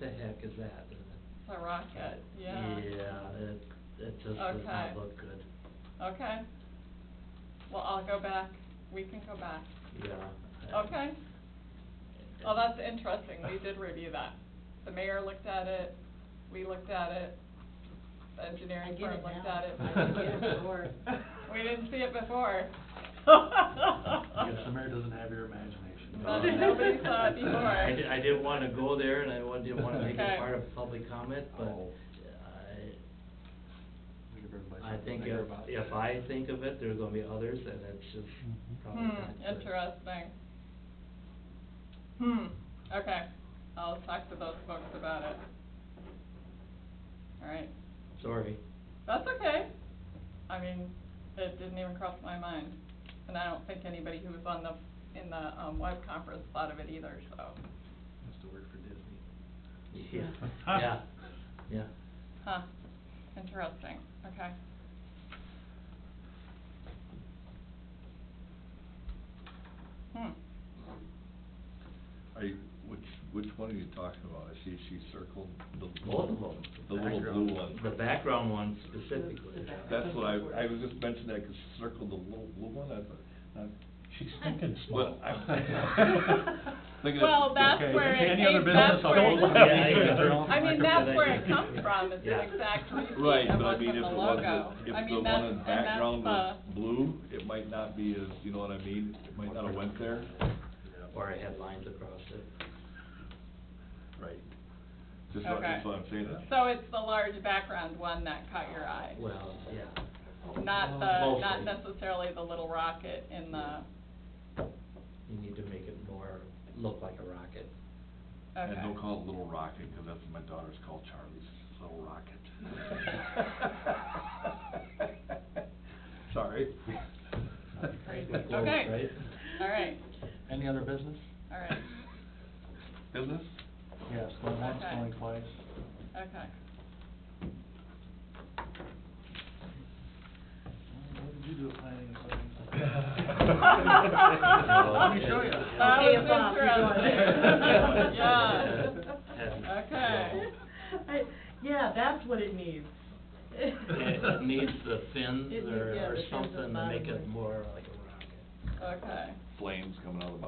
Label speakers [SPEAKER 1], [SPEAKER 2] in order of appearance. [SPEAKER 1] the heck is that? And
[SPEAKER 2] a rocket, yeah.
[SPEAKER 1] it- Yeah, it, it just does
[SPEAKER 2] Okay.
[SPEAKER 1] not look good.
[SPEAKER 2] Okay. Well, I'll go back, we can go back,
[SPEAKER 1] Yeah.
[SPEAKER 2] okay? Well, that's interesting, we did review that. The mayor looked at it, we looked at it, the
[SPEAKER 3] I
[SPEAKER 2] engineering
[SPEAKER 3] get
[SPEAKER 2] firm
[SPEAKER 3] it
[SPEAKER 2] looked
[SPEAKER 3] now.
[SPEAKER 2] at it.
[SPEAKER 3] I didn't get it before.
[SPEAKER 2] We didn't see it before.
[SPEAKER 4] I guess the mayor doesn't have your imagination.
[SPEAKER 2] But nobody saw it before.
[SPEAKER 1] I, di- I didn't wanna go there and I wa- didn't wanna make
[SPEAKER 2] Okay.
[SPEAKER 1] it part of public comment, but
[SPEAKER 4] Oh.
[SPEAKER 1] I,
[SPEAKER 4] We could bring by
[SPEAKER 1] I
[SPEAKER 4] something
[SPEAKER 1] think
[SPEAKER 4] bigger
[SPEAKER 1] if,
[SPEAKER 4] about
[SPEAKER 1] if
[SPEAKER 4] it.
[SPEAKER 1] I think of it, there's gonna be others and it's just
[SPEAKER 5] Mm-hmm.
[SPEAKER 1] probably
[SPEAKER 2] Hmm,
[SPEAKER 1] not good.
[SPEAKER 2] interesting. Hmm, okay, I'll talk to those folks about it. All right,
[SPEAKER 1] Sorry.
[SPEAKER 2] that's okay. I mean, it didn't even cross my mind, and I don't think anybody who was on the, in the, um, web conference thought of it either, so,
[SPEAKER 4] Has to work for Disney.
[SPEAKER 1] Yeah, yeah, yeah.
[SPEAKER 2] huh, interesting, okay. Hmm,
[SPEAKER 5] Are you, which, which one are you talking about? I see she circled the.
[SPEAKER 1] Both of them.
[SPEAKER 5] The little
[SPEAKER 4] Background.
[SPEAKER 5] blue one.
[SPEAKER 1] The background one specifically.
[SPEAKER 5] That's what I, I was just mentioning, I could circle the little blue one, I thought, uh, not.
[SPEAKER 6] She's thinking small.
[SPEAKER 5] Well, I'm thinking of-
[SPEAKER 2] Well, that's
[SPEAKER 5] okay.
[SPEAKER 2] where it
[SPEAKER 6] Any other
[SPEAKER 2] came-
[SPEAKER 6] business, I'll
[SPEAKER 2] that's where it-
[SPEAKER 6] go.
[SPEAKER 2] I mean, that's where it comes from, it's
[SPEAKER 1] Yeah.
[SPEAKER 2] an exact
[SPEAKER 5] Right,
[SPEAKER 2] repeat of
[SPEAKER 5] but I
[SPEAKER 2] what's
[SPEAKER 5] mean,
[SPEAKER 2] in
[SPEAKER 5] if
[SPEAKER 2] the
[SPEAKER 5] it wasn't,
[SPEAKER 2] logo. I
[SPEAKER 5] if the
[SPEAKER 2] mean,
[SPEAKER 5] one
[SPEAKER 2] that's,
[SPEAKER 5] in
[SPEAKER 2] and
[SPEAKER 5] the
[SPEAKER 2] that's
[SPEAKER 5] background was
[SPEAKER 2] the,
[SPEAKER 5] blue, it might not be as, you know what I mean? It might not have went there.
[SPEAKER 1] Or I had lines across it.
[SPEAKER 5] Right. Just what, that's
[SPEAKER 2] Okay.
[SPEAKER 5] what I'm saying. that's-
[SPEAKER 2] so it's the large background one that caught your eye.
[SPEAKER 1] Well, yeah.
[SPEAKER 2] Not the, not
[SPEAKER 1] Mostly.
[SPEAKER 2] necessarily the little rocket in the,
[SPEAKER 1] You need to make it more, look like a rocket.
[SPEAKER 5] And
[SPEAKER 2] okay.
[SPEAKER 5] don't call it Little Rocket, because that's what my daughter's called Charlie's, Little Rocket. Sorry.
[SPEAKER 1] Close,
[SPEAKER 2] Okay.
[SPEAKER 1] right?
[SPEAKER 2] All right,
[SPEAKER 4] Any other business?
[SPEAKER 2] all right,
[SPEAKER 5] Business?
[SPEAKER 4] Yes, going once,
[SPEAKER 2] Okay.
[SPEAKER 4] going twice.
[SPEAKER 2] okay.
[SPEAKER 4] What did you do at planning
[SPEAKER 2] Let
[SPEAKER 4] me show ya.
[SPEAKER 2] That
[SPEAKER 3] Hey,
[SPEAKER 2] was
[SPEAKER 3] Bob, you're going
[SPEAKER 2] interesting.
[SPEAKER 3] there.
[SPEAKER 2] Yeah. Okay.
[SPEAKER 3] I- Yeah, that's what it needs.
[SPEAKER 1] It it needs the fins
[SPEAKER 3] It needs-
[SPEAKER 1] or,
[SPEAKER 3] yeah,
[SPEAKER 1] or
[SPEAKER 3] the fins at the
[SPEAKER 1] something to
[SPEAKER 3] bottom
[SPEAKER 1] make
[SPEAKER 3] there.
[SPEAKER 1] it more like a rocket.
[SPEAKER 2] Okay.
[SPEAKER 5] Flames coming out of the